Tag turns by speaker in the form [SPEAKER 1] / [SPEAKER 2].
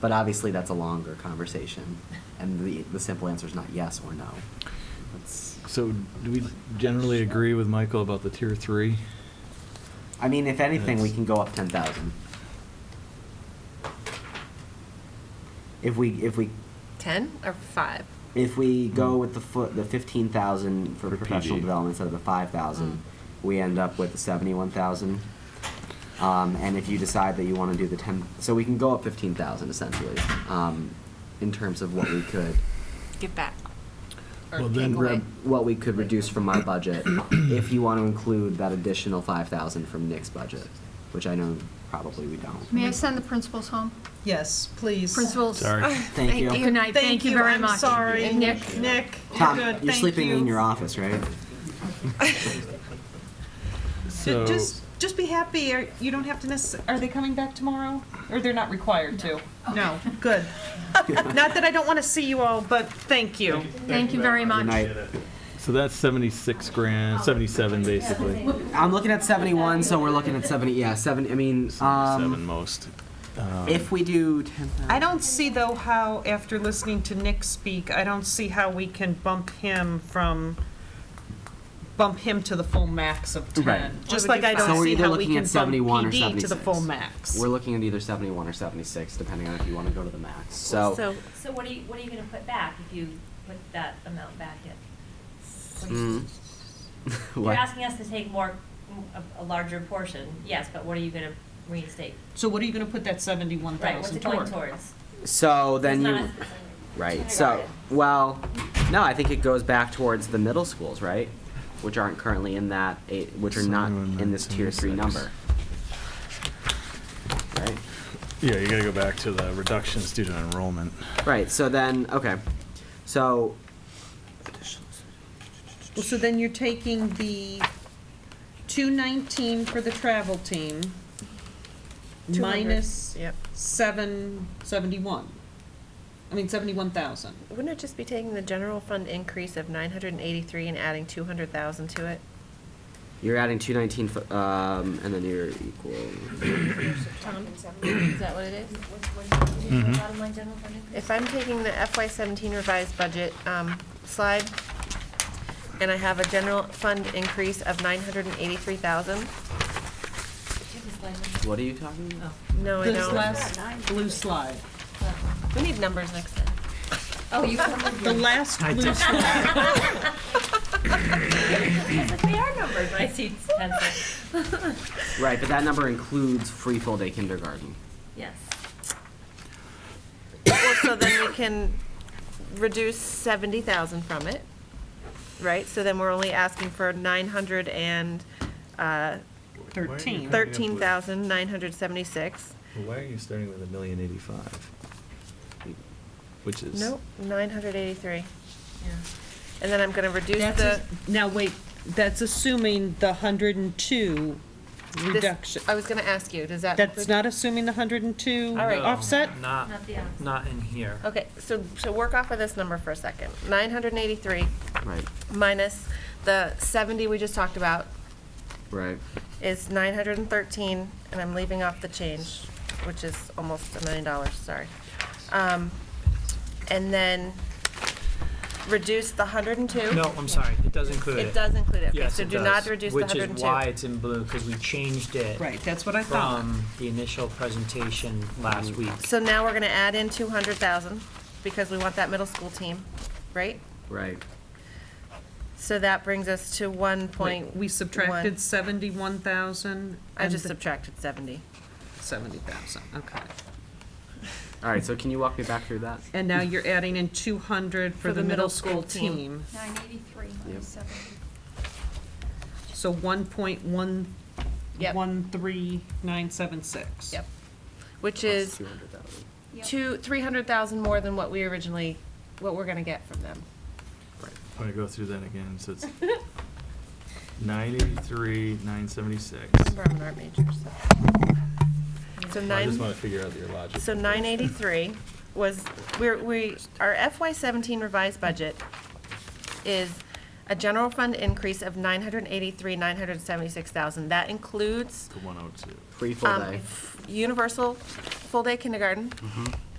[SPEAKER 1] But obviously, that's a longer conversation, and the, the simple answer is not yes or no. That's,
[SPEAKER 2] So do we generally agree with Michael about the tier three?
[SPEAKER 1] I mean, if anything, we
[SPEAKER 2] That's-
[SPEAKER 1] can go up ten thousand. If we, if we,
[SPEAKER 3] 10 or 5?
[SPEAKER 1] if we go with the foot, the fifteen thousand for
[SPEAKER 4] For
[SPEAKER 1] professional
[SPEAKER 4] PD.
[SPEAKER 1] development instead of the five thousand,
[SPEAKER 3] Mm.
[SPEAKER 1] we end up with the seventy-one thousand. Um, and if you decide that you wanna do the ten, so we can go up fifteen thousand essentially, um, in terms of what we could,
[SPEAKER 3] Give back. Or
[SPEAKER 5] Well, then
[SPEAKER 3] take
[SPEAKER 5] grab-
[SPEAKER 3] away.
[SPEAKER 1] what we could reduce from my budget, if you wanna include that additional five thousand from Nick's budget, which I know probably we don't.
[SPEAKER 6] May I send the principals home?
[SPEAKER 5] Yes, please.
[SPEAKER 6] Principals?
[SPEAKER 2] Sorry.
[SPEAKER 1] Ah, Thank you.
[SPEAKER 6] Good night, thank you very much.
[SPEAKER 5] I'm sorry.
[SPEAKER 6] And Nick?
[SPEAKER 5] Nick,
[SPEAKER 1] Tom,
[SPEAKER 5] good,
[SPEAKER 1] you're
[SPEAKER 5] thank
[SPEAKER 1] sleeping
[SPEAKER 5] you.
[SPEAKER 1] in your office, right?
[SPEAKER 2] So,
[SPEAKER 5] Just, just be happy, or you don't have to necess, are they coming back tomorrow? Or they're not required to? No, good. Not that I don't want to see you all, but thank you.
[SPEAKER 6] Thank you very
[SPEAKER 1] Good
[SPEAKER 6] much.
[SPEAKER 1] night.
[SPEAKER 2] so that's seventy-six grand, seventy-seven basically.
[SPEAKER 1] I'm looking at 71, so we're looking at 70. Yeah, seven. I mean,
[SPEAKER 4] Seven
[SPEAKER 1] um,
[SPEAKER 4] most.
[SPEAKER 1] if we do 10,000,
[SPEAKER 5] I don't see though how, after listening to Nick speak, I don't see how we can bump him from, bump him to the full max of
[SPEAKER 1] Right.
[SPEAKER 5] ten. Just
[SPEAKER 3] Why would
[SPEAKER 5] like
[SPEAKER 3] you
[SPEAKER 5] I
[SPEAKER 1] So
[SPEAKER 5] don't
[SPEAKER 1] we're
[SPEAKER 5] see
[SPEAKER 1] either
[SPEAKER 5] how we
[SPEAKER 1] looking
[SPEAKER 5] can
[SPEAKER 1] at
[SPEAKER 5] bump
[SPEAKER 1] 71 or
[SPEAKER 5] PD to the
[SPEAKER 1] 76.
[SPEAKER 5] full max.
[SPEAKER 1] we're looking at either 71 or 76, depending on if you want to go to the max. So,
[SPEAKER 3] So,
[SPEAKER 7] So what are you, what are you gonna put back if you put that amount back in?
[SPEAKER 1] Mm.
[SPEAKER 7] You're
[SPEAKER 1] what-
[SPEAKER 7] asking us to take more, a, a larger portion, yes, but what are you gonna reinstate?
[SPEAKER 5] So what are you gonna put that seventy-one
[SPEAKER 7] Right, what's
[SPEAKER 5] thousand
[SPEAKER 7] it going
[SPEAKER 5] toward?
[SPEAKER 7] towards?
[SPEAKER 1] so then
[SPEAKER 7] It's
[SPEAKER 1] you.
[SPEAKER 7] not-
[SPEAKER 1] Right.
[SPEAKER 7] Kindergarten.
[SPEAKER 1] So, well, no, I think it goes back towards the middle schools, right? Which aren't currently in that, eight, which are not
[SPEAKER 2] 71,
[SPEAKER 1] in this tier three
[SPEAKER 2] 76.
[SPEAKER 1] number. Right.
[SPEAKER 2] Yeah, you gotta go back to the reductions due to enrollment.
[SPEAKER 1] Right. So then, okay. So.
[SPEAKER 5] Well, so then you're taking the two nineteen for the travel team,
[SPEAKER 3] 200,
[SPEAKER 5] minus
[SPEAKER 3] yep.
[SPEAKER 5] seven seventy-one. I mean, seventy-one thousand.
[SPEAKER 3] wouldn't it just be taking the general fund increase of 983 and adding 200,000 to it?
[SPEAKER 1] You're adding two nineteen, um, and then you're equal.
[SPEAKER 3] Tom, is that what it is?
[SPEAKER 1] Mm-hmm.
[SPEAKER 7] Bottom line general fund increase?
[SPEAKER 3] If I'm taking the FY seventeen revised budget, um, slide, and I have a general fund increase of nine hundred and eighty-three thousand,
[SPEAKER 7] Did you have a slide number?
[SPEAKER 1] What are you talking about?
[SPEAKER 3] no, I
[SPEAKER 5] This
[SPEAKER 3] don't.
[SPEAKER 5] last blue slide,
[SPEAKER 3] We need numbers next time.
[SPEAKER 7] Oh, you covered
[SPEAKER 5] the
[SPEAKER 7] your.
[SPEAKER 5] last blue slide.
[SPEAKER 7] They are numbered, but I see pencil,
[SPEAKER 3] Oh.
[SPEAKER 1] Right, but that number includes free full day kindergarten.
[SPEAKER 7] yes.
[SPEAKER 3] Well, so then we can reduce seventy thousand from it, right? So then we're only asking for nine hundred and, uh,
[SPEAKER 5] Thirteen.
[SPEAKER 3] thirteen thousand nine hundred seventy-six.
[SPEAKER 2] Why are you starting with a million eighty-five? Which is.
[SPEAKER 3] Nope, nine hundred eighty-three.
[SPEAKER 7] Yeah.
[SPEAKER 3] And then I'm gonna reduce
[SPEAKER 5] That's
[SPEAKER 3] the.
[SPEAKER 5] a- Now, wait, that's assuming the hundred and two
[SPEAKER 3] this-
[SPEAKER 5] reduction.
[SPEAKER 3] I was gonna ask you, does that?
[SPEAKER 5] That's not assuming the hundred and two
[SPEAKER 3] All right. No,
[SPEAKER 5] offset?
[SPEAKER 8] Not,
[SPEAKER 7] Not the opposite.
[SPEAKER 8] not in here.
[SPEAKER 3] Okay, so, so work off of this number for a second. Nine hundred and eighty-three
[SPEAKER 1] Right,
[SPEAKER 3] minus the seventy we just talked about
[SPEAKER 1] right.
[SPEAKER 3] is nine hundred and thirteen, and I'm leaving off the change, which is almost a million dollars, sorry. Um, and then reduce the hundred and two.
[SPEAKER 8] No, I'm sorry, it does include it.
[SPEAKER 3] It does include it, okay,
[SPEAKER 8] Yes,
[SPEAKER 3] so
[SPEAKER 8] it
[SPEAKER 3] do not
[SPEAKER 8] does,
[SPEAKER 3] reduce the hundred
[SPEAKER 8] Which
[SPEAKER 3] and
[SPEAKER 8] is
[SPEAKER 3] two.
[SPEAKER 8] why it's in blue, because we changed it
[SPEAKER 5] Right, that's what I thought.
[SPEAKER 8] from the initial presentation last week.
[SPEAKER 3] So now we're gonna add in two hundred thousand, because we want that middle school team, right?
[SPEAKER 1] Right.
[SPEAKER 3] So that brings us to one
[SPEAKER 5] Wait,
[SPEAKER 3] point.
[SPEAKER 5] We subtracted
[SPEAKER 3] one.
[SPEAKER 5] seventy-one thousand.
[SPEAKER 3] I just subtracted seventy.
[SPEAKER 5] Seventy thousand, okay.
[SPEAKER 1] All right, so can you walk me back through that?
[SPEAKER 5] And now you're adding in two hundred for the middle school team.
[SPEAKER 6] Nine eighty-three, seventy.
[SPEAKER 5] So one point one,
[SPEAKER 3] Yep.
[SPEAKER 5] one three nine seven six.
[SPEAKER 3] Yep. Which is
[SPEAKER 1] Two hundred thousand.
[SPEAKER 3] two, three hundred thousand more than what we originally, what we're gonna get from them.
[SPEAKER 2] I'm gonna go through that again, so it's nine eighty-three, nine seventy-six.
[SPEAKER 3] We're an art major, so. So
[SPEAKER 2] I just wanna
[SPEAKER 3] nine,
[SPEAKER 2] figure out your logic.
[SPEAKER 3] so nine eighty-three was, we're, we, our FY seventeen revised budget is a general fund increase of nine hundred eighty-three, nine hundred seventy-six thousand. That includes,
[SPEAKER 2] The one oh two.
[SPEAKER 1] Free full
[SPEAKER 3] um,
[SPEAKER 1] day.
[SPEAKER 3] f- universal full-day kindergarten.